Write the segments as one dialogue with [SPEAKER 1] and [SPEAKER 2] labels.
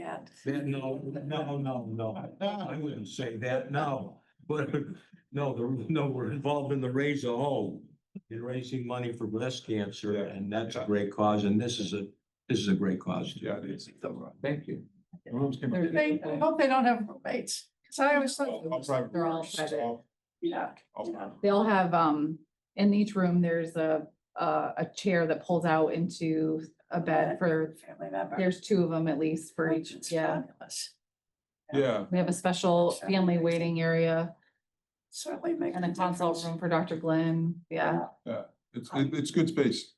[SPEAKER 1] that.
[SPEAKER 2] That, no, no, no, no, I wouldn't say that, no, but, no, the- no, we're involved in the Raise a Home. In raising money for breast cancer,
[SPEAKER 3] Yeah.
[SPEAKER 2] and that's a great cause, and this is a, this is a great cause.
[SPEAKER 3] Yeah, it is.
[SPEAKER 2] Thank you.
[SPEAKER 1] They, I hope they don't have roommates, cause I always
[SPEAKER 4] Oh,
[SPEAKER 1] thought.
[SPEAKER 3] I'll- I'll drive
[SPEAKER 1] They're all
[SPEAKER 3] first.
[SPEAKER 1] private,
[SPEAKER 3] I'll-
[SPEAKER 1] yeah.
[SPEAKER 3] I'll-
[SPEAKER 1] yeah.
[SPEAKER 5] They'll have, um, in each room, there's a, a, a chair that pulls out into a bed for,
[SPEAKER 1] Family member.
[SPEAKER 5] there's two of them at least for each,
[SPEAKER 1] It's
[SPEAKER 5] yeah.
[SPEAKER 1] fabulous.
[SPEAKER 3] Yeah,
[SPEAKER 5] We have a special family waiting area
[SPEAKER 1] Certainly make.
[SPEAKER 5] and a consult
[SPEAKER 1] difference.
[SPEAKER 5] room for Dr. Glenn, yeah.
[SPEAKER 3] it's, it- it's good space.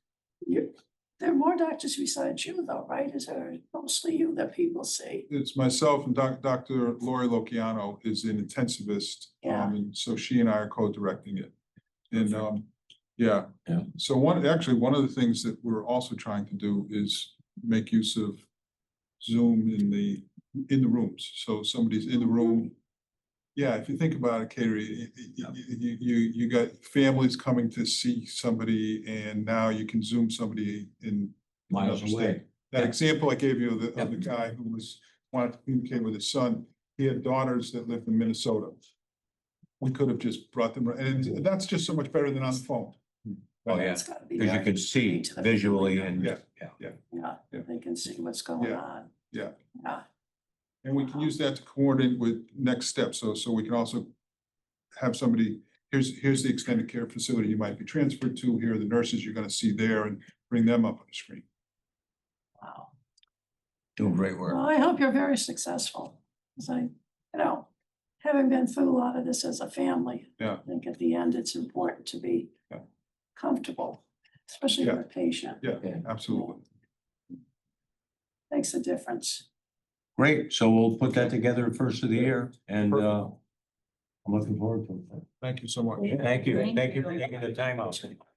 [SPEAKER 1] You, there are more doctors besides you though, right? Is there mostly you that people see?
[SPEAKER 3] It's myself and Doc, Dr. Lori Lociano is an intensivist.
[SPEAKER 1] Yeah.
[SPEAKER 3] Um, and so she and I are co-directing it. And, um, yeah.
[SPEAKER 2] Yeah.
[SPEAKER 3] So one, actually, one of the things that we're also trying to do is make use of Zoom in the, in the rooms. So somebody's in the room. Yeah, if you think about it, Kateri, you, you, you, you got families coming to see somebody and now you can Zoom somebody in
[SPEAKER 2] Miles away.
[SPEAKER 3] that
[SPEAKER 2] Yeah.
[SPEAKER 3] example I gave you of the, of the
[SPEAKER 2] Yep.
[SPEAKER 3] guy who was, wanted to communicate with his son, he had daughters that lived in Minnesota. We could have just brought them, and that's just so much better than on the phone.
[SPEAKER 4] Oh, yeah,
[SPEAKER 1] It's gotta be.
[SPEAKER 4] because you
[SPEAKER 1] nice
[SPEAKER 4] can see
[SPEAKER 1] to the-
[SPEAKER 4] visually and,
[SPEAKER 3] Yeah.
[SPEAKER 4] yeah.
[SPEAKER 1] Yeah,
[SPEAKER 3] Yeah.
[SPEAKER 1] they can see what's going
[SPEAKER 3] Yeah,
[SPEAKER 1] on.
[SPEAKER 3] yeah.
[SPEAKER 1] Yeah,
[SPEAKER 3] And we can use that to coordinate with next steps, so, so we can also have somebody, here's, here's the extended care facility you might be transferred to, here are the nurses you're gonna see there, and bring them up on the screen.
[SPEAKER 1] wow.
[SPEAKER 4] doing great
[SPEAKER 1] Well,
[SPEAKER 4] work.
[SPEAKER 1] I hope you're very successful, 'cause I, you know, having been through a lot of this as a family.
[SPEAKER 3] Yeah.
[SPEAKER 1] I think at the end, it's important to be
[SPEAKER 3] Yeah.
[SPEAKER 1] comfortable, especially
[SPEAKER 3] Yeah.
[SPEAKER 1] with a patient,
[SPEAKER 3] Yeah. Absolutely.
[SPEAKER 1] makes a difference.
[SPEAKER 2] Great, so we'll put that together first of the year, and, uh, I'm looking forward to it.
[SPEAKER 3] Thank you so much.
[SPEAKER 2] Thank you,
[SPEAKER 5] Thank
[SPEAKER 2] thank you for
[SPEAKER 5] you.
[SPEAKER 2] taking the time out.